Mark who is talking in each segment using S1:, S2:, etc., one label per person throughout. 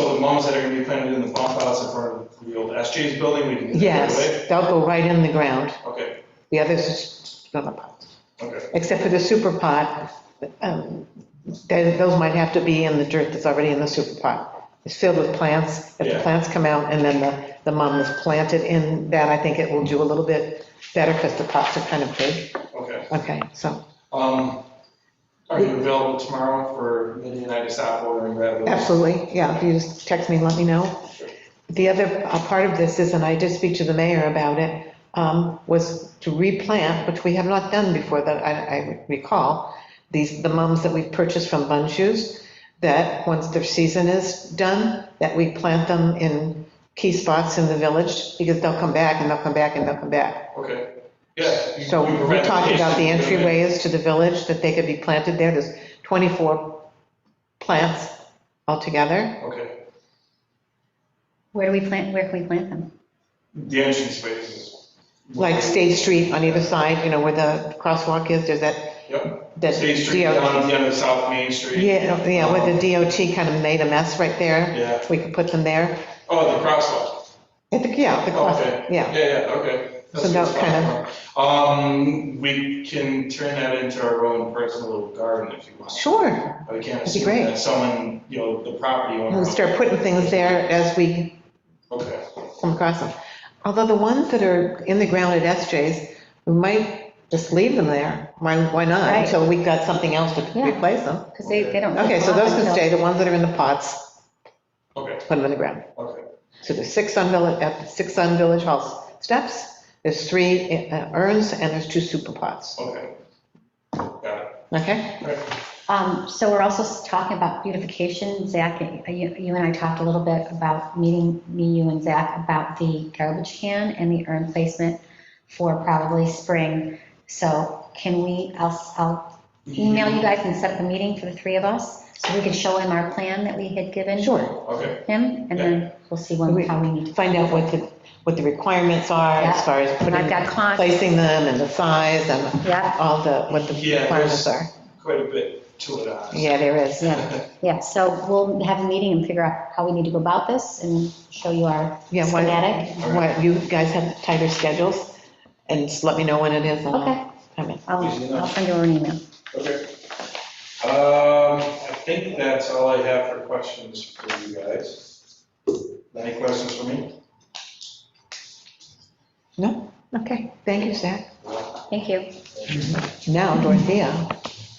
S1: So the ones that are gonna be planted in the bump outs in front of the old SJ's building, we can. get that right
S2: Yes, they'll go right in the ground.
S1: away?
S2: The others are just gonna pop.
S1: Okay, okay,
S2: Except for the super pot, um, they- those might have to be in the dirt that's already in the super pot. It's filled with plants. If the
S1: Yeah.
S2: plants come out and then the, the mum is planted in that, I think it will do a little bit better because the pots are kind of big.
S1: okay.
S2: Okay, so
S1: Um, are you available tomorrow for Mindy and I to stop ordering that?
S2: absolutely, yeah, if you just text me, and let me know. The other uh, part of this is, and I did speak to the mayor about it, um, was to replant, which we have not done before that I I recall, these, the mums that we've purchased from Bun Shoes, that once their season is done, that we plant them in key spots in the village, because they'll come back and they'll come back and they'll come back.
S1: Okay, yeah. you-
S2: So
S1: you
S2: we
S1: provide
S2: talked about the
S1: location, okay.
S2: entryways to the village, that they could be planted there. There's 24 plants altogether.
S1: Okay,
S3: Where do we plant, where can we plant them?
S1: the entrance spaces.
S2: like State Street on either side, you know, where the crosswalk is, there's that,
S1: Yep,
S2: that
S1: State Street down at
S2: DOT.
S1: the end of South Main Street. Um,
S2: Yeah, yeah, where the DOT kind of made a mess right there.
S1: Yeah.
S2: We could put them there.
S1: Oh, the crosswalk.
S2: I think, yeah, the cross,
S1: Okay.
S2: yeah.
S1: Yeah, yeah, okay.
S2: So
S1: That's
S2: that
S1: what's
S2: kind
S1: Um, we can turn that into our own personal garden if you want.
S2: Sure,
S1: But we can't
S2: That'd be
S1: assume
S2: great.
S1: that someone, you know, the property owner.
S2: we'll start putting things there as we
S1: Okay,
S2: come across them. Although the ones that are in the ground at SJ's, we might just leave them there. Why, why not?
S3: Right.
S2: Until we've got something else to
S3: Yeah.
S2: replace them.
S3: Because they, they don't.
S2: Okay, so
S3: come off
S2: those can
S3: until-
S2: stay, the ones that are in the pots,
S1: okay,
S2: put them in the ground.
S1: okay,
S2: So there's six on Village, at the six on Village Hall steps, there's three uh, urns, and there's two super pots,
S1: okay. Got it.
S2: okay?
S1: All right.
S3: Um, so we're also s- talking about beautification. Zach, you, you and I talked a little bit about meeting, me, you and Zach, about the garbage can and the urn placement for probably spring. So can we, I'll, I'll email you guys and set up a meeting for the three of us so we can show him our plan that we had given.
S2: Sure.
S1: Okay,
S3: Him, and then we'll see when, how we need to.
S2: Find out what the, what the requirements are as far as
S3: And I've
S2: putting,
S3: got con,
S2: placing them and the size and
S3: yeah,
S2: all the, what the
S1: Yeah,
S2: requirements
S1: there's-
S2: are.
S1: quite a bit to it, uh. honestly.
S2: Yeah, there is.
S3: Yeah, yeah, so we'll have a meeting and figure out how we need to go about this and show you our
S2: Yeah, why-
S3: schematic.
S2: Why, you guys have tighter schedules, and just let me know when it is. and I'll
S3: Okay,
S2: come in.
S1: Easy
S3: I'll,
S1: enough.
S3: I'll send you an email.
S1: Okay. Um, I think that's all I have for questions for you guys. Any questions for me?
S2: No? Okay, thank you, Zach.
S3: Thank you.
S2: Now Dorothea.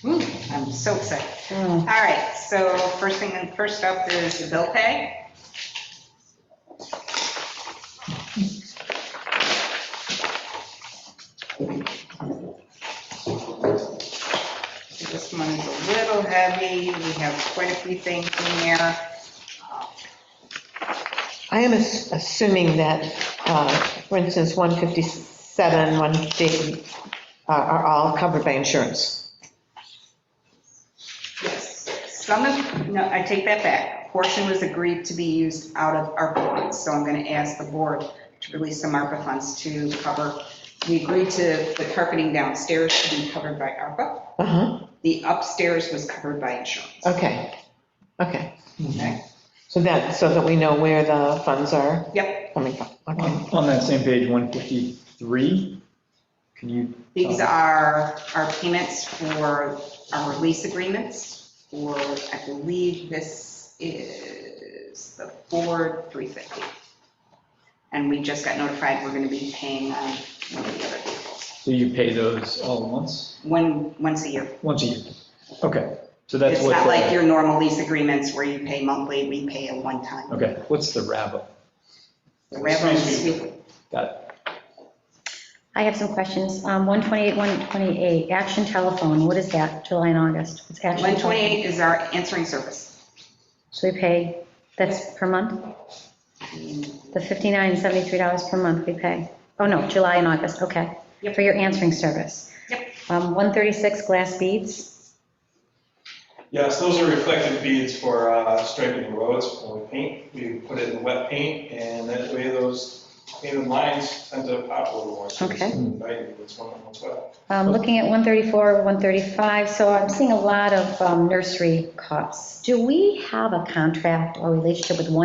S4: Ooh, I'm so excited.
S3: Mm,
S4: All right, so first thing, first up is the bill pay. This one is a little heavy, we have quite a few things in there.
S2: I am ass- assuming that, uh, for instance, 157, 150 are- uh, are all covered by insurance.
S4: Yes, Some of, no, I take that back. A Portion was agreed to be used out of ARPA funds, so I'm going to ask the board to release some ARPA funds to cover. We agreed to the carpeting downstairs to be covered by ARPA.
S2: Uh-huh,
S4: The upstairs was covered by insurance,
S2: okay, okay.
S4: okay?
S2: So that, so that we know where the funds are
S4: Yep,
S2: coming from, okay.
S5: On on that same page, 153, can you,
S4: these are our payments for our lease agreements, or I believe this is the Ford 350. And we just got notified we're going to be paying on one of the other vehicles.
S5: do you pay those all at once?
S4: One, once a year.
S5: Once a year? Okay, so that's
S4: It's
S5: what.
S4: not
S5: the-
S4: like your normal lease agreements where you pay monthly, we pay a one-time.
S5: Okay, what's the rabble?
S4: The revenue is weekly.
S5: Got it.
S3: I have some questions. Um, 128, 128, action telephone, what is that, July and August? It's action. telephone.
S4: 128 is our answering service.
S3: So we pay, that's per month? The 59 and 73 dollars per month we pay? Oh, no, July and August, okay.
S4: Yep.
S3: For your answering service.
S4: Yep.
S3: Um, 136 glass beads,
S1: Yes, those are reflective beads for uh, striping the roads when we paint. We put it in wet paint, and that way those Even lines tend to pop a little more. so it's
S3: Okay.
S1: inviting, it's one of those, well,
S3: Um, Looking at 134, 135, so I'm seeing a lot of um, nursery costs. Do we have a contract or relationship with one?